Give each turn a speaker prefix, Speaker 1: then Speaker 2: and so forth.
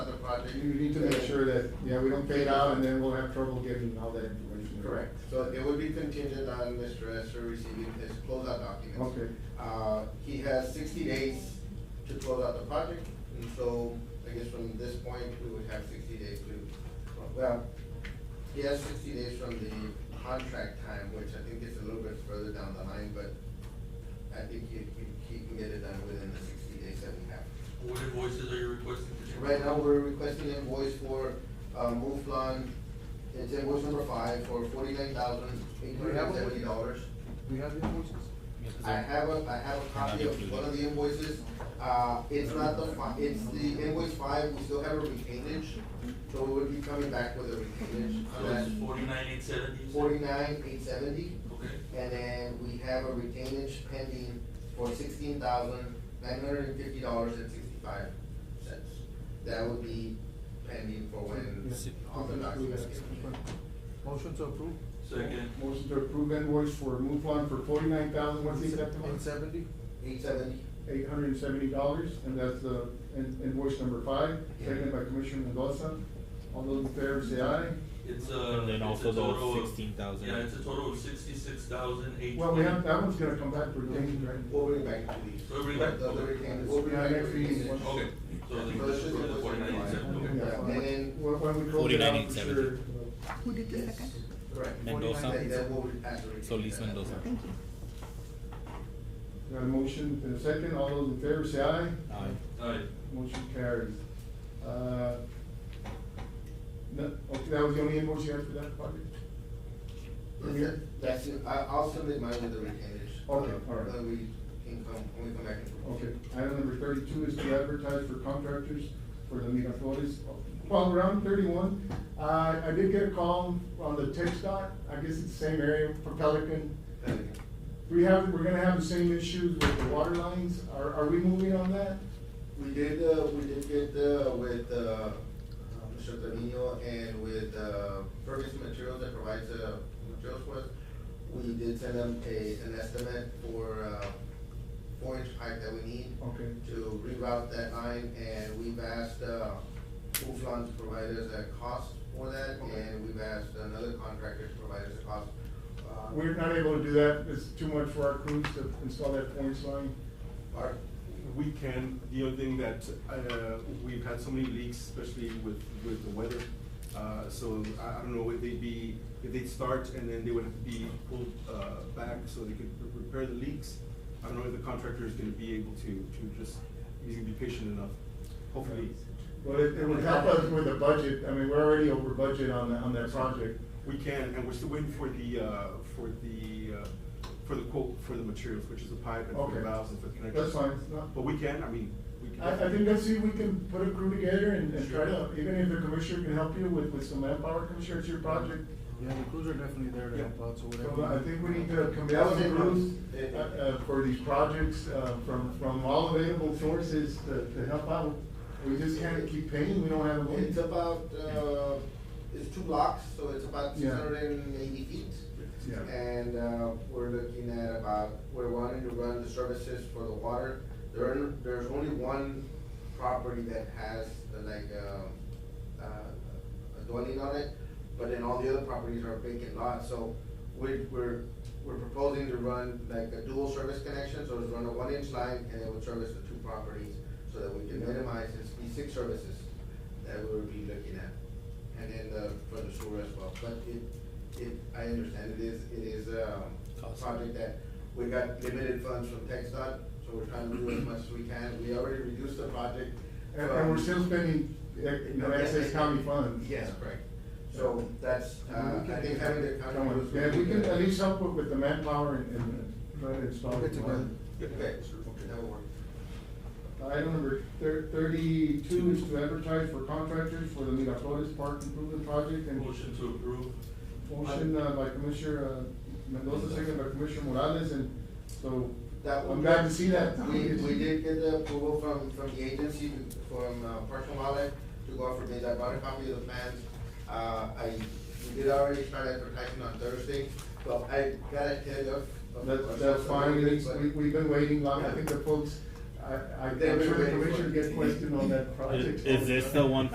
Speaker 1: project.
Speaker 2: You need to make sure that, yeah, we don't pay it out and then we'll have trouble getting all that information.
Speaker 1: Correct, so it would be contingent on Mr. Esser receiving his closeout documents.
Speaker 2: Okay.
Speaker 1: Uh, he has sixty days to close out the project, and so I guess from this point, we would have sixty days to, well, he has sixty days from the contract time, which I think is a little bit further down the line, but I think he, he- he can get it done within the sixty days that we have.
Speaker 3: What invoices are you requesting?
Speaker 1: Right now, we're requesting invoice for, uh, Mouflon, it's invoice number five for forty-nine thousand eight hundred and seventy dollars.
Speaker 4: We have invoices?
Speaker 1: I have a, I have a copy of one of the invoices, uh, it's not the fi- it's the invoice five, we still have a retainage, so we will be coming back with a retainage.
Speaker 3: So it's forty-nine eight seventy?
Speaker 1: Forty-nine eight seventy,
Speaker 3: Okay,
Speaker 1: and then we have a retainage pending for sixteen thousand nine hundred and fifty dollars and sixty-five cents. That would be pending for when all the documents get in.
Speaker 4: Motion to approve?
Speaker 3: second,
Speaker 2: Motion to approve invoice for Muflon for forty-nine thousand, what's the exact
Speaker 4: Eight
Speaker 2: amount?
Speaker 4: seventy?
Speaker 1: Eight seventy,
Speaker 2: Eight hundred and seventy dollars, and that's the in- invoice number five, seconded by Commissioner Mendoza. All those in favor say aye.
Speaker 3: it's a.
Speaker 5: And then
Speaker 3: it's a
Speaker 5: also the
Speaker 3: total of-
Speaker 5: 16,000.
Speaker 3: Yeah, it's a total of sixty-six thousand eight.
Speaker 2: Well, we have, that one's gonna come back for retained, right?
Speaker 1: we'll bring back to these.
Speaker 3: We'll bring back-
Speaker 1: The the retainage, we'll bring
Speaker 2: Yeah,
Speaker 1: back the
Speaker 2: next meeting.
Speaker 1: retainage.
Speaker 3: Okay, so the,
Speaker 1: So it's just
Speaker 3: so the
Speaker 1: invoice
Speaker 3: forty-nine eight seventy,
Speaker 1: number
Speaker 3: okay.
Speaker 1: five. And then
Speaker 2: When when we close it out, for
Speaker 5: 49,870.
Speaker 2: sure.
Speaker 6: Who did the
Speaker 1: Yes.
Speaker 6: second?
Speaker 1: Correct.
Speaker 5: Mendoza.
Speaker 1: That- that will have to retain
Speaker 5: Solis
Speaker 1: that.
Speaker 5: Mendoza.
Speaker 6: Thank you.
Speaker 2: Got a motion and a second, all those in favor say aye.
Speaker 5: Aye.
Speaker 3: Alright,
Speaker 2: Motion carries. Uh, No, okay, that was the only invoice you had for that project?
Speaker 1: Is it? That's it, I, I'll submit mine with the retainage.
Speaker 2: Okay,
Speaker 1: Uh,
Speaker 2: all right.
Speaker 1: Then we can come, when we come back and.
Speaker 2: Okay, item number thirty-two is to advertise for contractors for the Miraflores. Well, around thirty-one, uh, I did get a call on the text dot, I guess it's the same area for Pelican.
Speaker 1: Then-
Speaker 2: We have, we're gonna have the same issues with the water lines, are, are we moving on that?
Speaker 1: We did, uh, we did get, uh, with, uh, Mr. Trevino and with, uh, Ferguson Materials that provides, uh, materials for us, we did send them a, an estimate for, uh, four inch pipe that we need.
Speaker 2: Okay.
Speaker 1: To reroute that line, and we've asked, uh, Uflon to provide us a cost for that,
Speaker 2: Okay.
Speaker 1: and we've asked another contractor to provide us a cost. Uh,
Speaker 2: We're not able to do that, it's too much for our crews to install that four-inch line.
Speaker 1: Our,
Speaker 7: We can, the other thing that, uh, we've had so many leaks, especially with, with the weather. Uh, so I, I don't know if they'd be, if they'd start and then they would have to be pulled, uh, back so they could repair the leaks. I don't know if the contractor is gonna be able to, to just, he's gonna be patient enough, hopefully.
Speaker 2: Well, it, it would help us with the budget, I mean, we're already over budget on, the- on that project.
Speaker 7: We can, and we're still waiting for the, uh, for the, uh, for the quote, for the materials, which is the pipe and for
Speaker 2: Okay.
Speaker 7: the valves and for the connectors.
Speaker 2: That's fine, it's not-
Speaker 7: But we can, I mean, we can.
Speaker 2: I, I think let's see if we can put a crew together and, and try to, even if the commissioner can help you with, with some manpower, commissioner, it's your project.
Speaker 4: Yeah, the crews are definitely there to help out, so
Speaker 2: So
Speaker 4: whatever.
Speaker 2: I think we need to commit some crews, uh, uh, for these projects, uh, from, from all available sources to, to help out. We just can't keep paying, we don't have a way.
Speaker 1: It's about, uh, it's two blocks, so it's about six
Speaker 2: Yeah.
Speaker 1: hundred and eighty feet.
Speaker 2: Yeah.
Speaker 1: And, uh, we're looking at about, we're wanting to run the services for the water. There are, there's only one property that has uh, like, uh, uh, a dwelling on it, but then all the other properties are vacant lots, so we're, we're, we're proposing to run like a dual service connection, so it's run a one inch line and it would service the two properties, so that we can
Speaker 2: Yeah.
Speaker 1: minimize, it's be six services that we would be looking at, and then the, for the sewer as well, but it, it, I understand it is, it is, um, a
Speaker 5: Cost.
Speaker 1: project that, we got limited funds from Tech Dot, so we're trying to do as much as we can, we already reduced the project.
Speaker 2: And, and we're
Speaker 1: from-
Speaker 2: still spending, uh, you know, excess county funds.
Speaker 1: Yes, correct, so that's, uh, I think having the county.
Speaker 2: Come on,
Speaker 1: was-
Speaker 2: yeah, we can at least help with- with the manpower and, and try to install
Speaker 4: We'll
Speaker 2: it.
Speaker 4: get together.
Speaker 1: Okay, that will work.
Speaker 2: Item number thir- thirty-two is to advertise for contractors for the Miraflores Park Improvement Project and
Speaker 3: motion to approve,
Speaker 2: motion uh, by Commissioner uh, Mendoza, second by Commissioner Morales, and so
Speaker 1: That
Speaker 2: I'm
Speaker 1: one-
Speaker 2: glad to see that.
Speaker 1: We, we did get the approval from, from the agency, from uh, Parks and Wildlife to go out for bids. I brought a copy of the plans. Uh, I, we did already start advertising on Thursday, but I got ahead of. of-
Speaker 2: That's, that's fine, It's- we, we've been waiting long, I
Speaker 1: Yeah.
Speaker 2: think the folks, I, I, I'm
Speaker 1: They've been
Speaker 2: sure the
Speaker 1: waiting for
Speaker 2: commission
Speaker 1: it.
Speaker 2: gets questioned on that project.
Speaker 5: Is, is this the one